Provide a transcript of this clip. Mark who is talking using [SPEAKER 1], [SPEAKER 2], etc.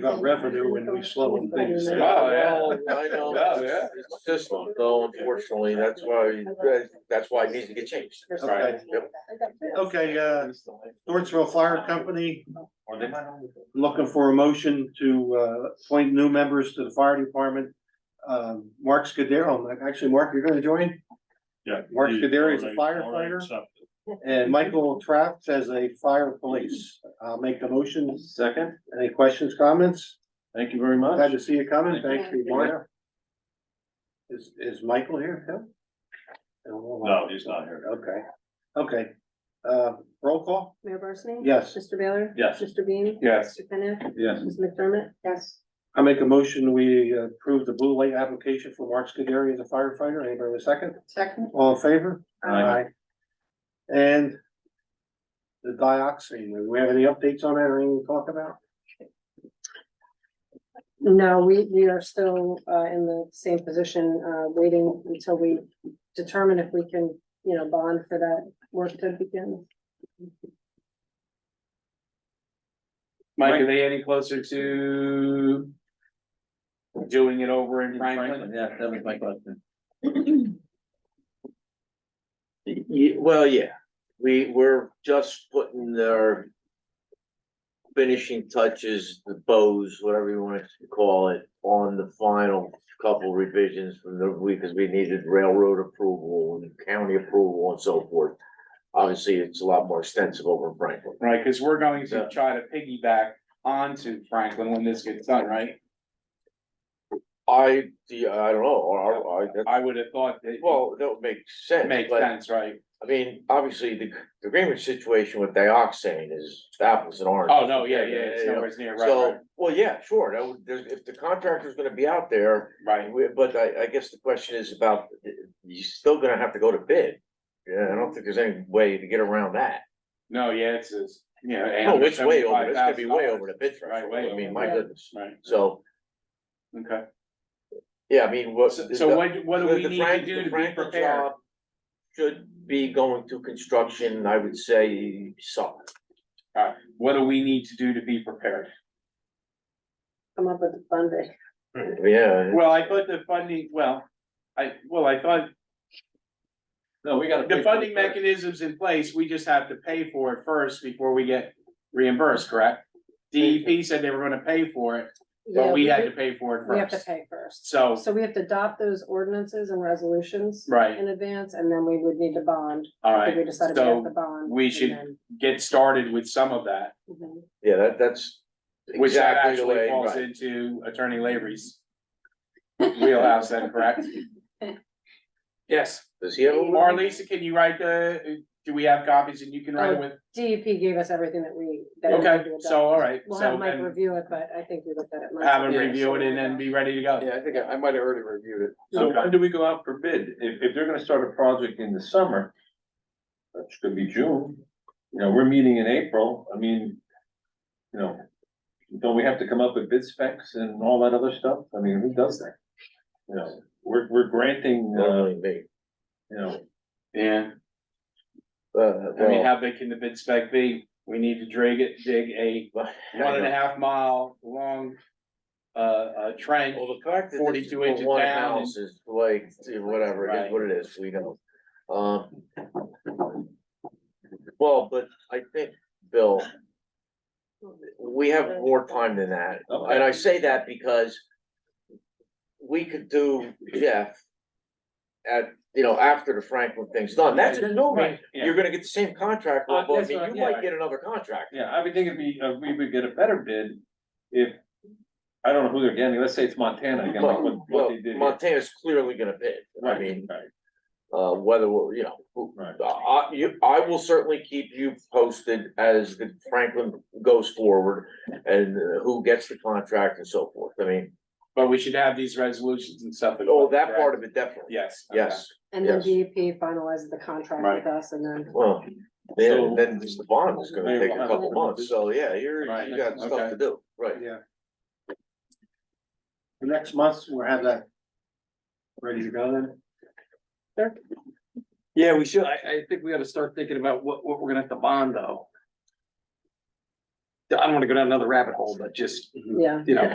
[SPEAKER 1] about revenue when we slow things
[SPEAKER 2] Yeah,
[SPEAKER 1] down.
[SPEAKER 2] well, I
[SPEAKER 3] Oh, Yeah,
[SPEAKER 2] know,
[SPEAKER 3] yeah.
[SPEAKER 2] it's a system, though, unfortunately, that's why, that's why it needs to get changed.
[SPEAKER 1] Okay.
[SPEAKER 2] Yep.
[SPEAKER 1] Okay, uh, Dortsville Fire Company, looking for a motion to, uh, appoint new members to the fire department. Um, Mark Scudero, actually, Mark, you're gonna join?
[SPEAKER 3] Yeah.
[SPEAKER 1] Mark Scuderi is a
[SPEAKER 3] Already- already
[SPEAKER 1] firefighter.
[SPEAKER 3] accepted.
[SPEAKER 1] And Michael Trapp as a fire police. I'll make the motion. Second. Any questions, comments?
[SPEAKER 4] Thank you very much.
[SPEAKER 1] Glad to see you coming. Thank you,
[SPEAKER 4] you.
[SPEAKER 1] Mark. Is, is Michael here? too?
[SPEAKER 3] No, he's not here.
[SPEAKER 1] Okay, okay. Uh, roll call?
[SPEAKER 5] Mayor Barsney?
[SPEAKER 1] Yes.
[SPEAKER 5] Mr. Baylor?
[SPEAKER 3] Yes.
[SPEAKER 5] Mr. Bean?
[SPEAKER 4] Yes.
[SPEAKER 5] Mr. Kenneth?
[SPEAKER 4] Yes.
[SPEAKER 5] Ms. McDermott? Yes.
[SPEAKER 1] I make a motion, we approve the blue light application for Mark Scuderi as a firefighter. Anybody with a second?
[SPEAKER 5] Second.
[SPEAKER 1] All in favor?
[SPEAKER 4] Aye.
[SPEAKER 1] And the dioxin, do we have any updates on that or anything to talk about?
[SPEAKER 5] No, we, we are still, uh, in the same position, uh, waiting until we determine if we can, you know, bond for that work to begin.
[SPEAKER 4] Mike, are they any closer to doing it over in Franklin? Yeah, that was my question.
[SPEAKER 2] Ye- well, yeah, we, we're just putting our finishing touches, the bows, whatever you want to call it, on the final couple revisions from the, because we needed railroad approval and county approval and so forth. Obviously, it's a lot more extensive over in Franklin.
[SPEAKER 4] Right, because we're going
[SPEAKER 2] Yeah.
[SPEAKER 4] to try to piggyback onto Franklin when this gets done, right?
[SPEAKER 2] I, the, I don't know, or, or, I, that-
[SPEAKER 4] I would have thought that well
[SPEAKER 2] well, that would make sense,
[SPEAKER 4] makes
[SPEAKER 2] but
[SPEAKER 4] sense, right?
[SPEAKER 2] I mean, obviously, the, the Greenwich situation with dioxane is apples and oranges.
[SPEAKER 4] Oh, no, yeah, yeah, it's
[SPEAKER 2] yeah.
[SPEAKER 4] nowhere near, right,
[SPEAKER 2] So, well, yeah, sure, that would, there's, if the contractor's gonna be out there,
[SPEAKER 4] right, right.
[SPEAKER 2] we- but I, I guess the question is about, you're still gonna have to go to bid. Yeah, I don't think there's any way to get around that.
[SPEAKER 4] No, yeah, it's, it's, you know.
[SPEAKER 2] No, it's way over, it's gonna be way over
[SPEAKER 4] $875,000.
[SPEAKER 2] the bid
[SPEAKER 4] Right,
[SPEAKER 2] threshold,
[SPEAKER 4] way
[SPEAKER 2] I mean,
[SPEAKER 4] over.
[SPEAKER 2] my
[SPEAKER 5] Yeah.
[SPEAKER 2] goodness,
[SPEAKER 4] Right,
[SPEAKER 2] so,
[SPEAKER 4] okay.
[SPEAKER 2] yeah, I mean, what.
[SPEAKER 4] So, so what, what do
[SPEAKER 2] the-
[SPEAKER 4] we
[SPEAKER 2] the
[SPEAKER 4] need
[SPEAKER 2] Frank-
[SPEAKER 4] to do
[SPEAKER 2] the
[SPEAKER 4] to be
[SPEAKER 2] Franklin
[SPEAKER 4] prepared?
[SPEAKER 2] job Should be going to construction, I would say, summer.
[SPEAKER 4] Alright, what do we need to do to be prepared?
[SPEAKER 5] Come up with the funding.
[SPEAKER 2] yeah.
[SPEAKER 4] Well, I thought the funding, well, I, well, I thought
[SPEAKER 3] No, we gotta.
[SPEAKER 4] the funding mechanism's in place, we just have to pay for it first before we get reimbursed, correct? DEP said they were gonna pay for it,
[SPEAKER 5] Yeah,
[SPEAKER 4] but we had to pay for it
[SPEAKER 5] We have to
[SPEAKER 4] first,
[SPEAKER 5] pay first.
[SPEAKER 4] so,
[SPEAKER 5] So we have to adopt those ordinances and resolutions
[SPEAKER 4] right,
[SPEAKER 5] in advance, and then we would need to bond. If we
[SPEAKER 4] alright,
[SPEAKER 5] decided to have the
[SPEAKER 4] so
[SPEAKER 5] bond.
[SPEAKER 4] we
[SPEAKER 5] and
[SPEAKER 4] should-
[SPEAKER 5] then-
[SPEAKER 4] get started with some of that,
[SPEAKER 5] Mhm.
[SPEAKER 2] Yeah, that, that's.
[SPEAKER 4] which that
[SPEAKER 2] exactly the way-
[SPEAKER 4] actually falls
[SPEAKER 2] right.
[SPEAKER 4] into Attorney Lavery's wheelhouse then, correct? Yes,
[SPEAKER 2] Does he have a?
[SPEAKER 4] Marlisa, can you write the, do we have copies and you can
[SPEAKER 5] Oh.
[SPEAKER 4] write it with,
[SPEAKER 5] DEP E gave us everything that we. that we had
[SPEAKER 4] okay,
[SPEAKER 5] to adopt.
[SPEAKER 4] so, alright,
[SPEAKER 5] We'll have
[SPEAKER 4] so
[SPEAKER 5] Mike
[SPEAKER 4] then
[SPEAKER 5] review it, but I think we looked at it. Mike.
[SPEAKER 4] have him review it and then be ready to go.
[SPEAKER 6] Yeah, I think I I might have already reviewed it.
[SPEAKER 3] So when
[SPEAKER 6] do we go out for bid? If, if they're gonna start a project in the summer, which could be June, you know, we're meeting in April, I mean, you know, don't we have to come up with bid specs and all that other stuff? I mean, who does that? You know, we're, we're granting, uh,
[SPEAKER 2] Normally me.
[SPEAKER 6] you know,
[SPEAKER 4] Yeah.
[SPEAKER 2] Uh,
[SPEAKER 4] I mean,
[SPEAKER 2] well,
[SPEAKER 4] how big can the bid spec be? We need to dig it, dig a
[SPEAKER 2] but-
[SPEAKER 4] one and a half mile long. Uh, uh, trench,
[SPEAKER 2] Well, the fact that. this is
[SPEAKER 4] 42
[SPEAKER 2] for
[SPEAKER 4] inches
[SPEAKER 2] one
[SPEAKER 4] down and-
[SPEAKER 2] house Is like, see, whatever, it
[SPEAKER 4] Right.
[SPEAKER 2] is what it is, we know. Um. Well, but I think, Bill. We have more time than that,
[SPEAKER 6] Okay.
[SPEAKER 2] and I say that because. We could do Jeff. At, you know, after the Franklin thing's done, that's assuming
[SPEAKER 3] yeah.
[SPEAKER 2] you're gonna get the same contract,
[SPEAKER 6] Uh,
[SPEAKER 2] well, I
[SPEAKER 6] that's
[SPEAKER 2] mean,
[SPEAKER 6] what
[SPEAKER 2] you
[SPEAKER 6] I- yeah.
[SPEAKER 2] might get another contract.
[SPEAKER 6] yeah, I would think it'd be, uh, we would get a better bid if, I don't know who they're getting, let's say it's Montana again, like what,
[SPEAKER 2] Well,
[SPEAKER 6] what they did. here.
[SPEAKER 2] Montana's clearly gonna bid, I
[SPEAKER 6] Right,
[SPEAKER 2] mean,
[SPEAKER 6] right,
[SPEAKER 2] uh, whether, we're- you know, who-
[SPEAKER 6] right.
[SPEAKER 2] Uh, I, you, I will certainly keep you posted as the Franklin goes forward and uh, who gets the contract and so forth. I mean,
[SPEAKER 4] but we should have these resolutions and stuff.
[SPEAKER 2] oh, that part of it definitely,
[SPEAKER 4] Yes. okay.
[SPEAKER 2] yes,
[SPEAKER 5] And then
[SPEAKER 2] Yes.
[SPEAKER 5] DEP finalizes the contract
[SPEAKER 4] Right.
[SPEAKER 5] with us and then.
[SPEAKER 2] well, then,
[SPEAKER 6] So-
[SPEAKER 2] then just the bond is gonna take a couple of months, so yeah, you're,
[SPEAKER 4] Right,
[SPEAKER 2] you got stuff
[SPEAKER 4] okay.
[SPEAKER 2] to do, right?
[SPEAKER 1] Yeah. The Next month, we'll have that ready to go then.
[SPEAKER 3] Yeah, we should. I, I think we gotta start thinking about what, what we're gonna have to bond though.
[SPEAKER 5] I don't wanna go down another rabbit hole, but just,
[SPEAKER 6] yeah.
[SPEAKER 4] Mm-hmm.
[SPEAKER 5] you know.